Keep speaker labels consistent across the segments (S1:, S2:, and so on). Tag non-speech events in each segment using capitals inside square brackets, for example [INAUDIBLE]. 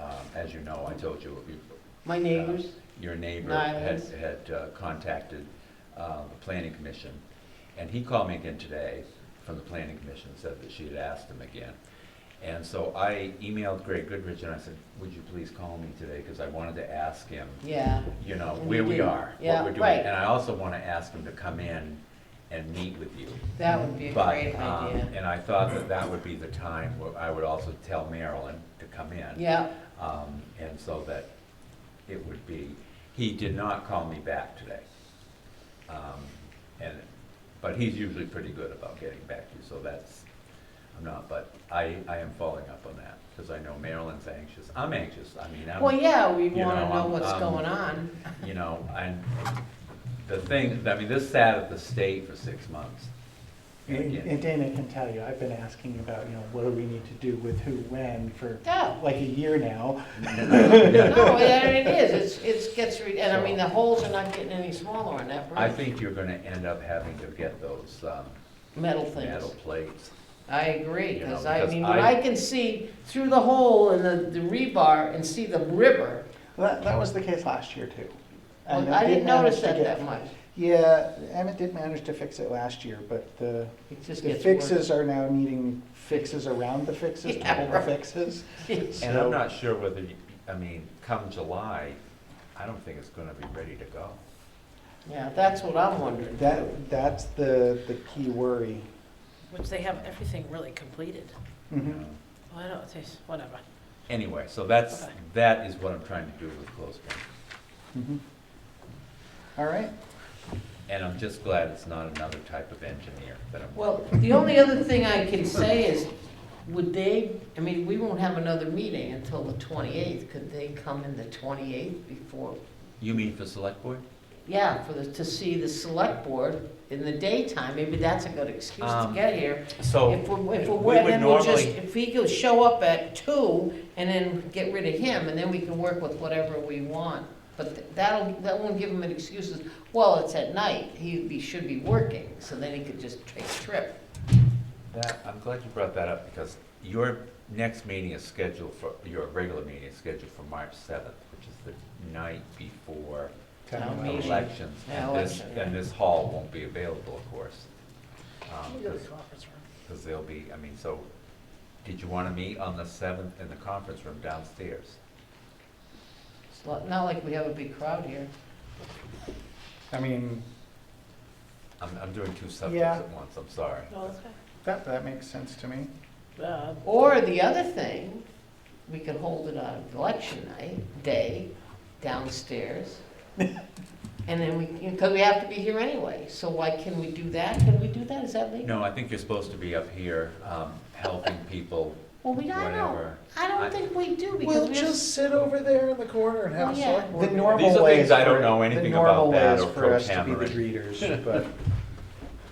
S1: Um, as you know, I told you, you-
S2: My neighbors,
S1: your neighbor had,
S2: Nylons.
S1: had uh, contacted uh, the planning commission, and he called me again today from the planning commission, said that she had asked him again. And so I emailed Greg Goodrich and I said, would you please call me today, because I wanted to ask him,
S2: yeah,
S1: you know,
S2: And he
S1: where we
S2: didn't.
S1: are, what
S2: Yeah,
S1: we're doing.
S2: right.
S1: And I also want to ask him to come in and meet with you.
S2: that would be a
S1: But,
S2: great
S1: um,
S2: idea.
S1: and I thought that that would be the time where I would also tell Marilyn to come in.
S2: Yeah,
S1: Um, and so that it would be, he did not call me back today. Um, and, but he's usually pretty good about getting back to you, so that's, I'm not, but I, I am following up on that, because I know Marilyn's anxious, I'm anxious, I mean,
S2: well,
S1: I'm,
S2: yeah, we
S1: you
S2: wanna
S1: know,
S2: know
S1: um,
S2: what's
S1: um,
S2: going on.
S1: you know, and the thing, I mean, this sat at the state for six months. And
S3: And
S1: again,
S3: and Dana can tell you, I've been asking about, you know, what do we need to do with who, when, for
S2: Yeah.
S1: [LAUGHS]
S3: like a year now.
S2: No, there it is, it's, it gets, re- and I mean, the holes are not getting any smaller on that
S1: I
S2: [LAUGHS] bridge,
S1: think you're gonna end up having to get those, um,
S2: metal
S1: metal
S2: things.
S1: plates.
S2: I agree,
S1: You know,
S2: cause I
S1: because
S2: mean, when
S1: I-
S2: I can see through the hole in the, the rebar and see the river,
S3: That, that was the case last year too. And
S2: well, I
S3: they
S2: didn't
S3: managed
S2: notice
S3: to
S2: that
S3: get-
S2: that much.
S3: Yeah, Emmett did manage to fix it last year, but the,
S2: It just
S3: the
S2: gets worse.
S3: fixes are now needing fixes around the fixes,
S2: Yeah,
S3: total
S2: right.
S3: fixes.
S1: And I'm
S3: So-
S1: not sure whether, you- I mean, come July, I don't think it's gonna be ready to go.
S2: [LAUGHS] Yeah, that's what I'm wondering.
S3: That, that's the, the key worry.
S4: Which they have everything really completed.
S1: you
S2: Mm-hmm.
S3: Mhm.
S1: know.
S4: Well, I don't, it's- whatever.
S1: Anyway, so that's,
S4: Okay.
S1: that is what I'm trying to do with closed one.
S3: Mhm. All right,
S1: And I'm just glad it's not another type of engineer that I'm.
S2: Well, the only other thing I can say is, would they, I mean, we won't have another meeting until the twenty-eighth. Could they come in the twenty-eighth before,
S1: You mean for select board?
S2: yeah, for the, to see the select board in the daytime? Maybe that's a good excuse to
S1: Um,
S2: get here. If
S1: So,
S2: we're, if
S1: we
S2: we're,
S1: would
S2: and then we'll just,
S1: normally-
S2: if he could show up at two and then get rid of him, and then we can work with whatever we want. But th- that'll, that won't give him an excuse, well, it's at night, he be- should be working, so then he could just take a trip.
S1: that, I'm glad you brought that up because your next meeting is scheduled for, your regular meeting is scheduled for March seventh, which is the night before
S2: Town meeting.
S1: elections.
S2: Yeah,
S1: And this,
S2: election, yeah.
S1: and this hall won't be available, of course. um,
S4: You go to
S1: 'cause-
S4: the conference room.
S1: Because they'll be, I mean, so, did you want to meet on the seventh in the conference room downstairs?
S2: It's not not like we have a big crowd here.
S3: I mean,
S1: I'm, I'm doing two subjects
S3: Yeah.
S1: at once, I'm sorry.
S4: No, that's fine.
S3: that, that makes sense to me.
S4: Uh,
S2: Or the other thing, we could hold it on election night, day, downstairs. And then we, because we have to be here anyway, so why can we do that? Can we do that? Is that legal?
S1: No, I think you're supposed to be up here, um, helping people,
S2: Well, we, I don't,
S1: whatever.
S2: I
S1: I-
S2: don't think we do because
S5: Well,
S2: we just,
S5: just sit over there in the corner and have
S2: Oh,
S5: a
S2: yeah.
S5: select board.
S3: The
S5: meeting.
S3: normal
S1: These are
S3: way
S1: things
S3: is
S1: I don't
S3: for-
S1: know anything about that or
S3: The normal way is for us to be
S1: pro-tammering.
S3: the readers,
S1: [LAUGHS]
S3: but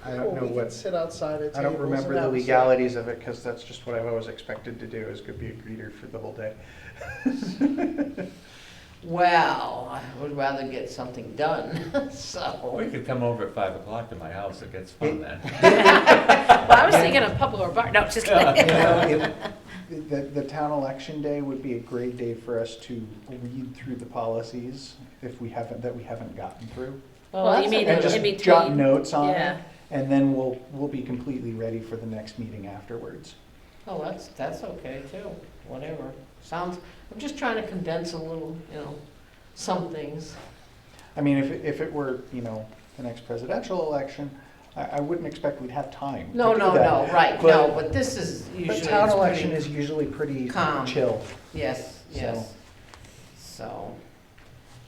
S3: I
S5: Well,
S3: don't know
S5: we can
S3: what,
S5: Sit outside at tables.
S3: I don't remember the
S5: and have a select-
S3: legalities of it, because that's just what I've always expected to do, is go be a greeter for the whole
S1: [LAUGHS]
S3: day.
S2: well, I would rather get something done, [LAUGHS]
S1: or you
S2: so.
S1: could come over at five o'clock to my house, it gets fun then.
S4: Well, I was thinking of Pablo or Bar, no, just kidding. [LAUGHS]
S3: You know, it- The, the town election day would be a great day for us to read through the policies if we haven't, that we haven't gotten through.
S4: Well, you
S2: that's
S4: mean
S2: okay.
S3: And
S4: in
S3: just
S4: between.
S3: jot notes on it,
S4: Yeah.
S3: and then we'll, we'll be completely ready for the next meeting afterwards.
S2: Oh, that's, that's okay too, whatever. Sounds, I'm just trying to condense a little, you know, some things.
S3: I mean, if, it- if it were, you know, the next presidential election, I, I wouldn't expect we'd have time. to
S2: No,
S3: do
S2: no,
S3: that.
S2: no, right, no, but this is usually.
S3: But town
S2: it's
S3: election
S2: pretty-
S3: is usually pretty
S2: calm.
S3: chill.
S2: Yes,
S3: so-
S2: yes. So,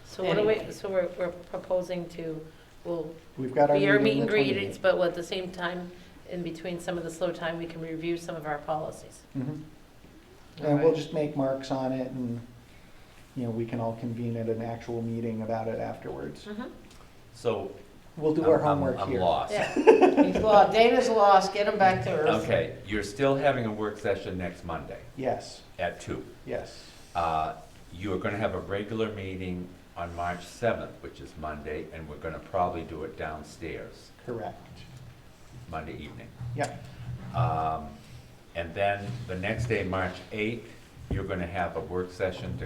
S4: So what are we, so we're, we're proposing to, we'll
S3: We've got our
S4: be our meet
S3: meeting
S4: and
S3: the
S4: greetings,
S3: 28th.
S4: but at the same time, in between some of the slow time, we can review some of our policies.
S3: Mhm.
S2: all
S3: And we'll
S2: right.
S3: just make marks on it and, you know, we can all convene at an actual meeting about it afterwards.
S1: So.
S3: We'll do
S1: I'm-
S3: our
S1: I'm-
S3: homework
S1: I'm
S3: here.
S1: lost.
S4: Yeah,
S2: He's lost, Dana's lost, get him back to earth.
S1: Okay, you're still having a work session next Monday
S3: [LAUGHS] Yes,
S1: at two.
S3: yes.
S1: Uh, You are going to have a regular meeting on March 7th, which is Monday, and we're going to probably do it downstairs
S3: Correct.
S1: Monday evening.
S3: Yeah.
S1: Um, And then the next day, March 8th, you're going to have a work session to